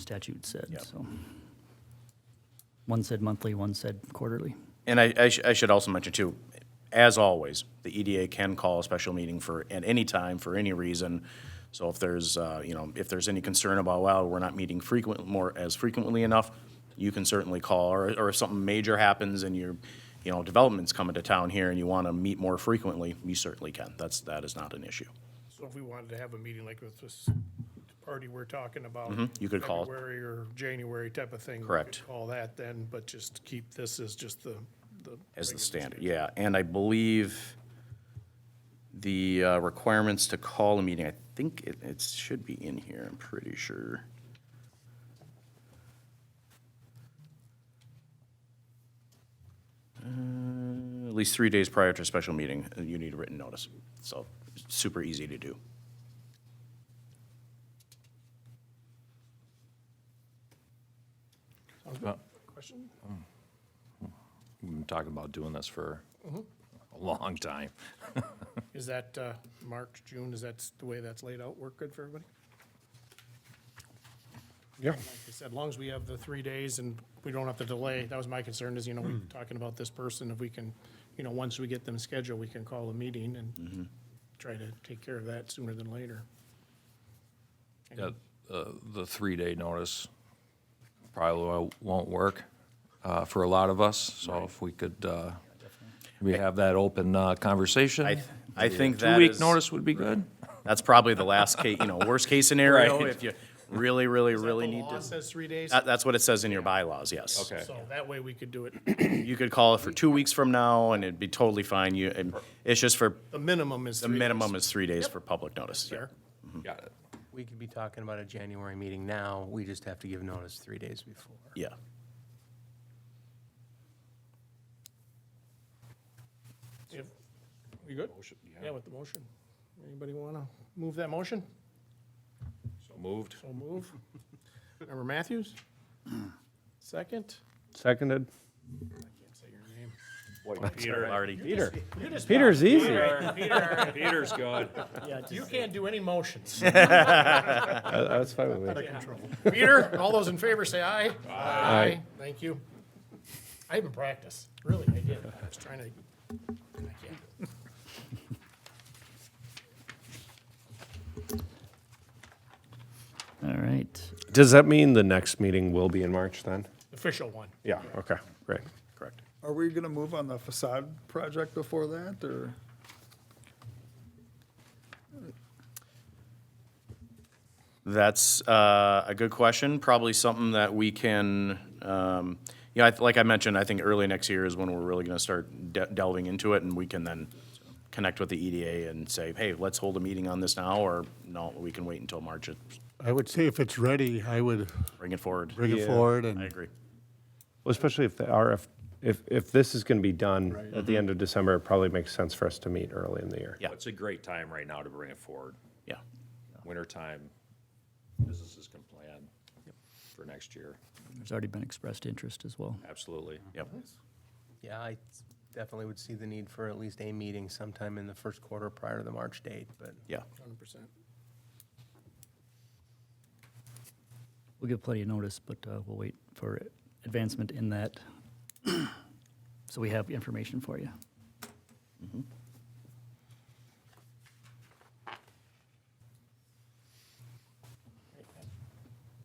statute said, Yep. so. One said monthly, one said quarterly. And I, I sh- I should also mention too, as always, the EDA can call a special meeting for, at any time, for any reason. So if there's, uh, you know, if there's any concern about, well, we're not meeting frequent, more, as frequently enough, you can certainly call, or, or if something major happens and you're, you know, development's coming to town here and you want to meet more frequently, you certainly can. That's, that is not an issue. So if we wanted to have a meeting like with this party we're talking about. Mm-hmm. you could call it. February or January type of thing. we could Correct. Call that then, but just keep this as just the, the. As the standard, yeah. And I believe the uh, requirements to call a meeting, I think it, it should be in here, I'm pretty sure. Uh, At least three days prior to a special meeting, uh, you need a written notice. So super easy to do. Question? We've been talking about doing this for a long time. Is that, uh, March, June, is that the way that's laid out, work good for everybody? Yeah. Like I said, as long as we have the three days and we don't have to delay, that was my concern is, you know, we're talking about this person, if we can, you know, once we get them scheduled, we can call a meeting Mm-hmm. and try to take care of that sooner than later. Yeah, The, the three-day notice probably wo- won't work uh, for a lot of us, so if we could, uh, we have that open uh, conversation. I, I think that Two-week is- notice would be good. That's probably the last case, you know, worst case scenario, Right. if you really, really, really The need law to. says three days, That, that's what it says in your bylaws, yes. Okay. so that way we could do it, You could call it for two weeks from now, and it'd be totally fine. You, and it's just for, the minimum is the three days. minimum is three days for public notice. Yeah. Fair. Got it. We could be talking about a January meeting now, we just have to give notice three days before. Yeah. If- We good? Yeah, with the motion. Anybody want to move that motion? So moved. So move. Member Matthews? Second? Seconded. Say your name. Peter already. Peter. You just- Peter's easy. Peter's good. You can't do any motions. That- That's fine with me. Peter, all those in favor say aye. Aye. Thank you. I even practiced, really, I did. I was trying to, I can't. All right. Does that mean the next meeting will be in March then? Official one. Yeah, okay, great. Correct. Are we gonna move on the facade project before that, or? That's uh, a good question. Probably something that we can, um, you know, I- like I mentioned, I think early next year is when we're really going to start de- delving into it, and we can then connect with the EDA and say, hey, let's hold a meeting on this now, or no, we can wait until March, and I would say if it's ready, I would bring it forward. bring it forward I and agree. Well, especially if the RF, if, if this is going to be done at the end of December, it probably makes sense for us to meet early in the year. Yeah. It's a great time right now to bring it forward. Yeah. Wintertime, businesses can plan for next year, There's already been expressed interest as well. absolutely. Yep. Yeah, I definitely would see the need for at least a meeting sometime in the first quarter prior to the March date, but Yeah. Hundred percent. We'll give plenty of notice, but uh, we'll wait for advancement in that. So we have information for you.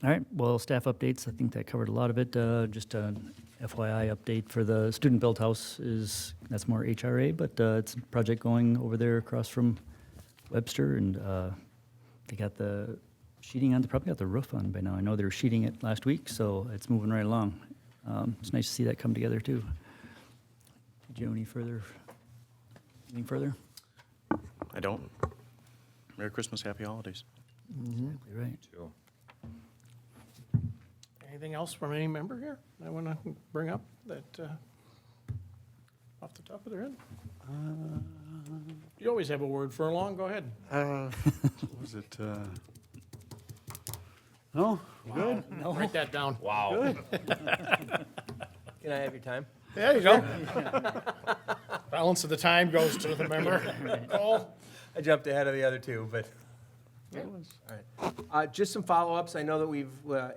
All right, well, staff updates, I think that covered a lot of it. Uh, Just an FYI update for the student built house is, that's more HRA, but uh, it's a project going over there across from Webster and uh, they got the sheeting on, they probably got the roof on by now. I know they were sheeting it last week, so it's moving right along. Um, It's nice to see that come together too. Did you have any further, anything further? I don't. Merry Christmas, happy holidays. Exactly Right. too. Anything else from any member here that I want to bring up that, uh, off the top of their head? You always have a word for long, go ahead. was it, uh, no? Good. Write that down. Wow. can I have your time? There you go. Balance of the time goes to the member. Cole? I jumped ahead of the other two, but. All right. Uh, Just some follow-ups. I know that we've, uh,